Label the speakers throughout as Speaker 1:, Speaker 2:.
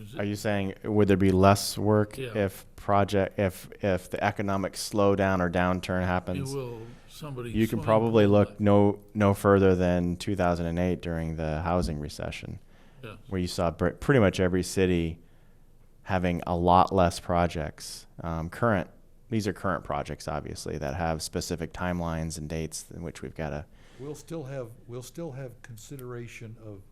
Speaker 1: is
Speaker 2: Are you saying would there be less work
Speaker 1: Yeah.
Speaker 2: if project if if the economic slowdown or downturn
Speaker 1: it
Speaker 2: happens?
Speaker 1: will, somebody.
Speaker 2: You can
Speaker 1: swing
Speaker 2: probably
Speaker 1: by.
Speaker 2: look no no further than 2008 during the housing recession,
Speaker 1: Yeah.
Speaker 2: where you saw br- pretty much every city having a lot less projects. Um, current these are current projects, obviously, that have specific timelines and dates in which we've got to.
Speaker 3: We'll still have, we'll still have consideration of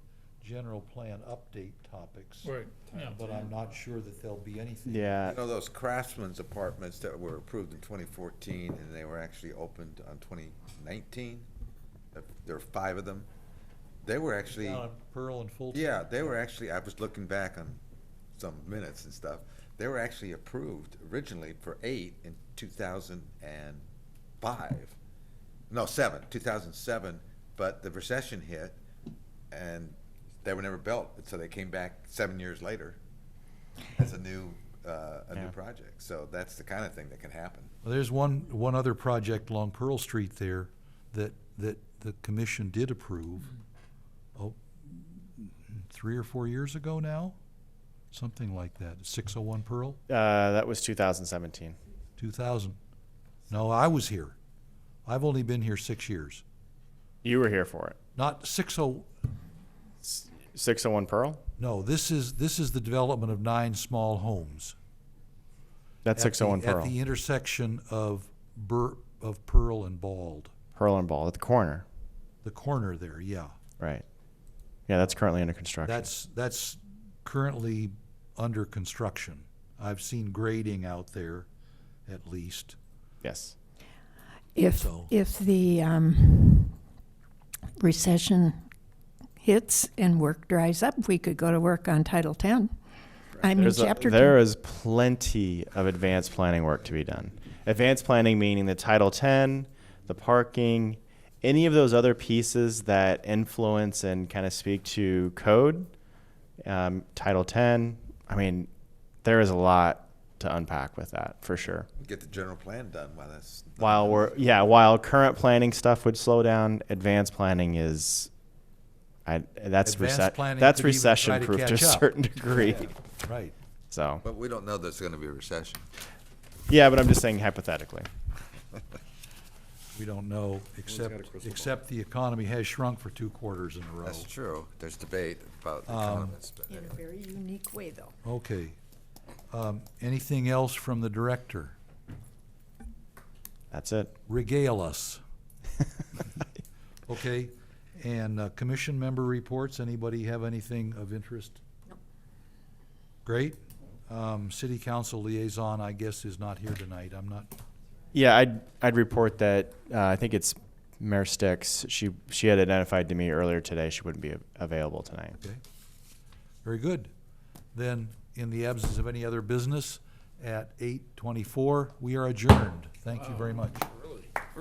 Speaker 3: general plan update topics.
Speaker 1: Right, yeah.
Speaker 3: But I'm not sure that there'll be anything.
Speaker 2: Yeah,
Speaker 4: You know those craftsman's apartments that were approved in twenty fourteen and they were actually opened on twenty nineteen? uh, There were five of them. They were actually,
Speaker 3: Down at Pearl and Fulton.
Speaker 4: yeah, they were actually, I was looking back on some minutes and stuff. They were actually approved originally for eight in two thousand and five. No, seven, two thousand seven, but the recession hit and they were never built, so they came back seven years later as a new, uh, a
Speaker 2: Yeah.
Speaker 4: new project. So that's the kind of thing that can happen.
Speaker 3: Well, There's one, one other project along Pearl Street there that, that the commission did approve, oh, three or four years ago now? Something like that, six oh one Pearl,
Speaker 2: uh, that was 2017.
Speaker 3: two thousand. No, I was here. I've only been here six years.
Speaker 2: You were here for it.
Speaker 3: Not six oh,
Speaker 2: S- 601 Pearl.
Speaker 3: no, this is, this is the development of nine small homes.
Speaker 2: That's
Speaker 3: at the-
Speaker 2: 601 Pearl.
Speaker 3: At the intersection of Bur, of Pearl and Bald,
Speaker 2: Pearl and Ball at the corner.
Speaker 3: the corner there, yeah.
Speaker 2: Right. Yeah, that's currently under construction.
Speaker 3: That's, that's currently under construction. I've seen grading out there, at least.
Speaker 2: yes.
Speaker 5: If,
Speaker 3: So-
Speaker 5: if the um, recession hits and work dries up, we could go to work on Title 10. I mean,
Speaker 2: There's a-
Speaker 5: Chapter
Speaker 2: there
Speaker 5: 10.
Speaker 2: is plenty of advanced planning work to be done. Advanced planning meaning the Title 10, the parking, any of those other pieces that influence and kind of speak to code, um, Title 10. I mean, there is a lot to unpack with that for sure.
Speaker 4: Get the general plan done while that's. not-
Speaker 2: While we're yeah, while current planning stuff would slow down, advanced planning is, I that's
Speaker 3: Advanced
Speaker 2: recession
Speaker 3: planning
Speaker 2: that's
Speaker 3: could even try
Speaker 2: recession
Speaker 3: to
Speaker 2: proof to a
Speaker 3: catch up.
Speaker 2: certain degree.
Speaker 3: Right.
Speaker 2: So
Speaker 4: But we don't know there's gonna be a recession.
Speaker 2: yeah, but I'm just saying hypothetically.
Speaker 3: We don't know,
Speaker 4: got a
Speaker 3: except,
Speaker 4: crystal ball.
Speaker 3: except the economy has shrunk for two quarters in a row.
Speaker 4: That's true. There's debate about the economists, but
Speaker 5: In a
Speaker 4: anyway.
Speaker 5: very unique way, though.
Speaker 3: Okay. Um, Anything else from the director?
Speaker 2: That's it.
Speaker 3: Regale us. Okay, and uh, commission member reports, anybody have anything of interest? Great. Um, City council liaison, I guess, is not here tonight. I'm not,
Speaker 2: Yeah, I'd I'd report that uh, I think it's Mayor Sticks. She she had identified to me earlier today she wouldn't be av- available tonight.
Speaker 3: okay. Very good. Then, in the absence of any other business, at eight twenty-four, we are adjourned. Thank you very much.